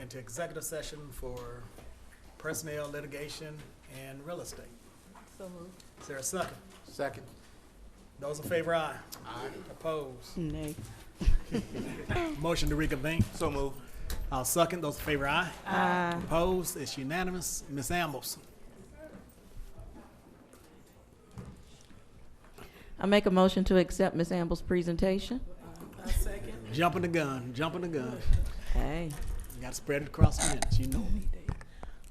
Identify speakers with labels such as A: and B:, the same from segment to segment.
A: into executive session for personnel, litigation, and real estate.
B: So moved.
A: Is there a second?
C: Second.
A: Those in favor, aye. Aye. Opposed?
B: Nay.
A: Motion to reconvene.
C: So moved.
A: I'll second. Those in favor, aye.
B: Aye.
A: Opposed? It's unanimous. Ms. Ambles?
B: I make a motion to accept Ms. Amble's presentation.
A: Jumping the gun, jumping the gun.
B: Hey.
A: You gotta spread it across the minutes, you know.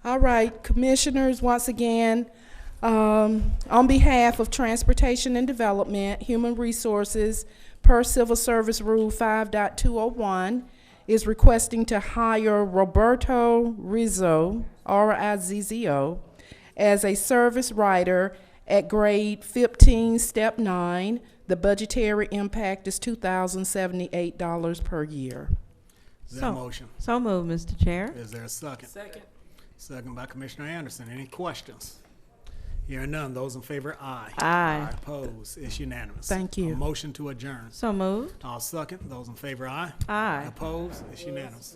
D: All right, Commissioners, once again, um, on behalf of Transportation and Development, Human Resources, per Civil Service Rule 5.201, is requesting to hire Roberto Rizzo, R-I-Z-Z-O, as a service writer at grade 15, step 9. The budgetary impact is $2,078 per year.
A: Is there a
B: So-
A: motion?
B: So moved, Mr. Chair.
A: Is there a second? Second. Second by Commissioner Anderson. Any questions? Hearing none. Those in favor, aye.
B: Aye.
A: Opposed? It's unanimous.
D: Thank you.
A: A motion to adjourn.
B: So moved.
A: I'll second. Those in favor, aye.
B: Aye.
A: Opposed? It's unanimous.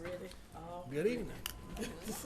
A: Good evening.